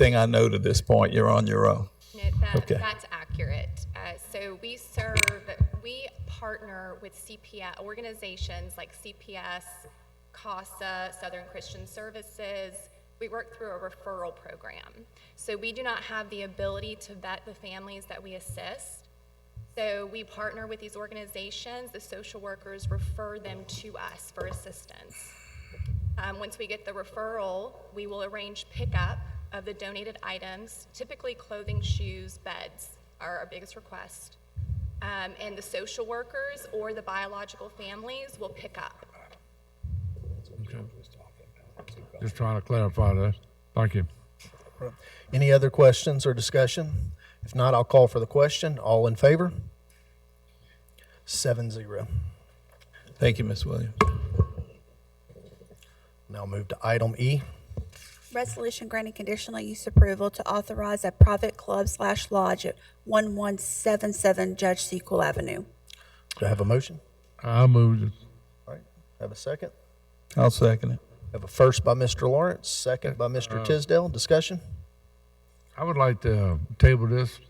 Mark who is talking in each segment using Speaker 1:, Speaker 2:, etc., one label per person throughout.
Speaker 1: thing I know to this point, you're on your own.
Speaker 2: No, that,
Speaker 1: Okay.
Speaker 2: that's accurate. Uh, so we serve, we partner with CPS organizations like CPS, CASA, Southern Christian Services. We work through a referral program. So we do not have the ability to vet the families that we assist. So we partner with these organizations. The social workers refer them to us for assistance. Um, once we get the referral, we will arrange pickup of the donated items, typically clothing, shoes, beds are our biggest request. Um, and the social workers or the biological families will pick up.
Speaker 3: Just trying to clarify that. Thank you.
Speaker 4: Any other questions or discussion? If not, I'll call for the question. All in favor? Seven zero.
Speaker 1: Thank you, Ms. Williams.
Speaker 4: Now move to item E.
Speaker 5: Resolution granting conditional use approval to authorize a private club slash lodge at 1177 Judge Sequel Avenue.
Speaker 4: Do I have a motion?
Speaker 3: I moved it.
Speaker 4: All right, have a second?
Speaker 1: I'll second it.
Speaker 4: Have a first by Mr. Lawrence, second by
Speaker 6: Uh,
Speaker 4: Mr. Tisdale. Discussion?
Speaker 3: I would like to uh, table this,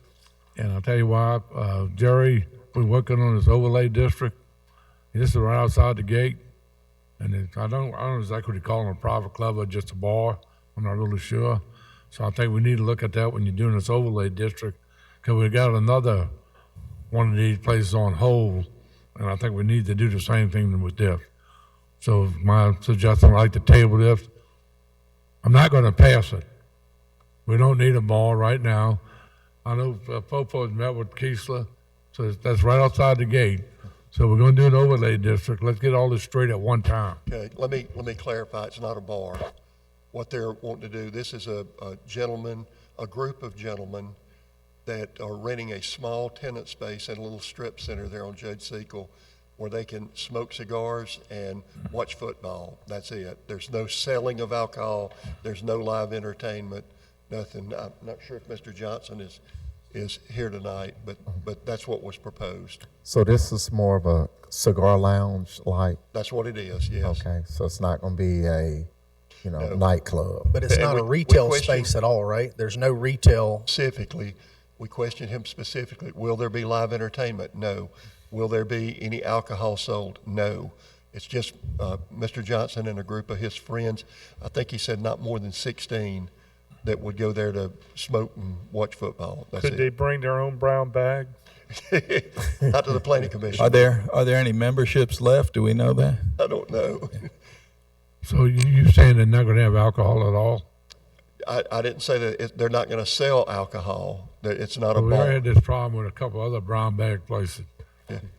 Speaker 3: and I'll tell you why. Uh, Jerry, we're working on this overlay district. This is right outside the gate, and it, I don't, I don't know exactly what you call it, a private club or just a bar. I'm not really sure. So I think we need to look at that when you're doing this overlay district, because we got another one of these places on hold, and I think we need to do the same thing with this. So my suggestion, I'd like to table this. I'm not going to pass it. We don't need a mall right now. I know uh, Popo's met with Keesler, so it's- that's right outside the gate. So we're going to do an overlay district. Let's get all this straight at one time.
Speaker 6: Okay, let me, let me clarify, it's not a bar. What they're wanting to do, this is a a gentleman, a group of gentlemen that are renting a small tenant space in a little strip center there on Judge Sequel where they can smoke cigars and watch football. That's it. There's no selling of alcohol, there's no live entertainment, nothing. I'm not sure if Mr. Johnson is, is here tonight, but, but that's what was proposed.
Speaker 7: So this is more of a cigar lounge like,
Speaker 6: That's what it is, yes.
Speaker 7: okay, so it's not gonna be a, you know, nightclub.
Speaker 4: But it's
Speaker 6: And
Speaker 4: not
Speaker 6: we-
Speaker 4: a
Speaker 6: we
Speaker 4: retail
Speaker 6: question-
Speaker 4: space at all, right? There's no retail.
Speaker 6: specifically, we questioned him specifically, will there be live entertainment? No. Will there be any alcohol sold? No. It's just uh, Mr. Johnson and a group of his friends, I think he said not more than 16, that would go there to smoke and watch football. That's
Speaker 8: Could they
Speaker 6: it.
Speaker 8: bring their own brown bag?
Speaker 6: Not to the planning
Speaker 1: Are
Speaker 6: commission.
Speaker 1: there, are there any memberships left? Do we know that?
Speaker 6: I don't know.
Speaker 3: So you, you saying they're not going to have alcohol at all?
Speaker 6: I, I didn't say that it- they're not going to sell alcohol, that it's not a
Speaker 3: We already
Speaker 6: bar.
Speaker 3: had this problem with a couple other brown bag places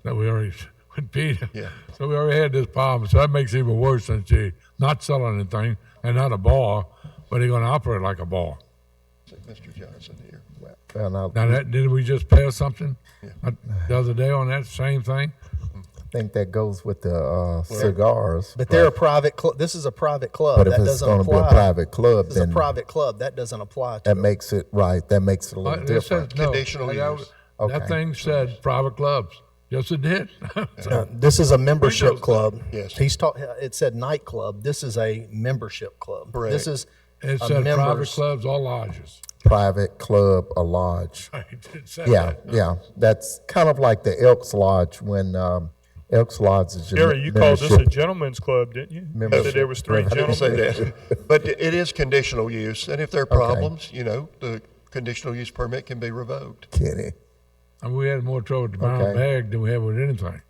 Speaker 3: that we already, with Peter.
Speaker 6: Yeah.
Speaker 3: So we already had this problem. So that makes it even worse since they're not selling anything and not a bar, but they're going to operate like a bar.
Speaker 6: Mr. Johnson here.
Speaker 7: Well, now,
Speaker 3: Now,
Speaker 7: I
Speaker 3: that, did we just pass something uh, the other day on that same thing?
Speaker 7: think that goes with the uh, cigars.
Speaker 4: But they're a private club. This is a private club.
Speaker 7: But
Speaker 4: That
Speaker 7: if it's
Speaker 4: doesn't
Speaker 7: gonna be a
Speaker 4: apply.
Speaker 7: private club,
Speaker 4: This is a
Speaker 7: then that
Speaker 4: private club. That doesn't apply to it.
Speaker 7: makes it, right, that makes it a
Speaker 3: Uh,
Speaker 7: little
Speaker 3: it
Speaker 7: different.
Speaker 3: says no.
Speaker 6: Conditional
Speaker 3: Like, I-
Speaker 6: use.
Speaker 3: That
Speaker 7: Okay.
Speaker 3: thing said private clubs. Yes, it did.
Speaker 4: No, This is a membership club.
Speaker 6: Yes.
Speaker 4: He's taught, it said nightclub. This is a membership club.
Speaker 6: Correct.
Speaker 4: This is
Speaker 3: It
Speaker 4: a
Speaker 3: said private
Speaker 4: Uh, members.
Speaker 3: clubs or lodges.
Speaker 7: Private club, a lodge.
Speaker 3: It said
Speaker 7: Yeah,
Speaker 3: that.
Speaker 7: yeah, that's kind of like the Elks Lodge when, um, Elks Lodge is. your
Speaker 8: Gary, you called this a
Speaker 7: membership.
Speaker 8: gentleman's club, didn't you? You
Speaker 7: Membership.
Speaker 8: said there was three
Speaker 6: I didn't
Speaker 8: gentlemen.
Speaker 6: say that. But it is conditional use, and if there are problems, you know, the conditional use permit can be revoked.
Speaker 7: Kidding.
Speaker 3: And we had more trouble with the brown
Speaker 7: Okay.
Speaker 3: bag than we had with anything.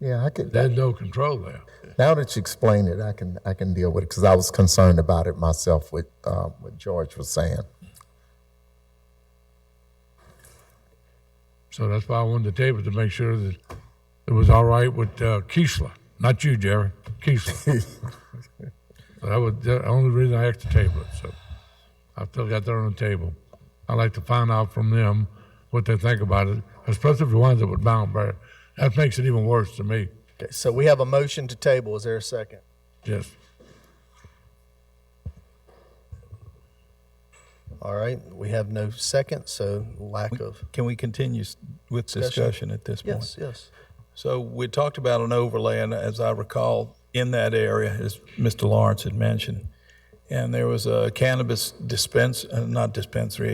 Speaker 7: Yeah, I could,
Speaker 3: There's no control there.
Speaker 7: Now that you explain it, I can I can deal with it because I was concerned about it myself. With uh, what George was saying,
Speaker 3: So that's why I wanted to table to make sure that it was all right with uh, Keesler, not you, Jerry, Keesler. so that was the only reason I asked to table it. So I still got that on the table. I'd like to find out from them what they think about it, especially if it winds up with Bound Bear. That makes it even worse to me.
Speaker 4: Okay, So we have a motion to table. Is there a second?
Speaker 3: Yes.
Speaker 4: All right, we have no second, so lack of.
Speaker 1: Can we continue s- with discussion at this point?
Speaker 4: Yes, yes.
Speaker 1: So we talked about an overlay, and as I recall, in that area, as Mr. Lawrence had mentioned, and there was a cannabis dispense, uh, not dispensary,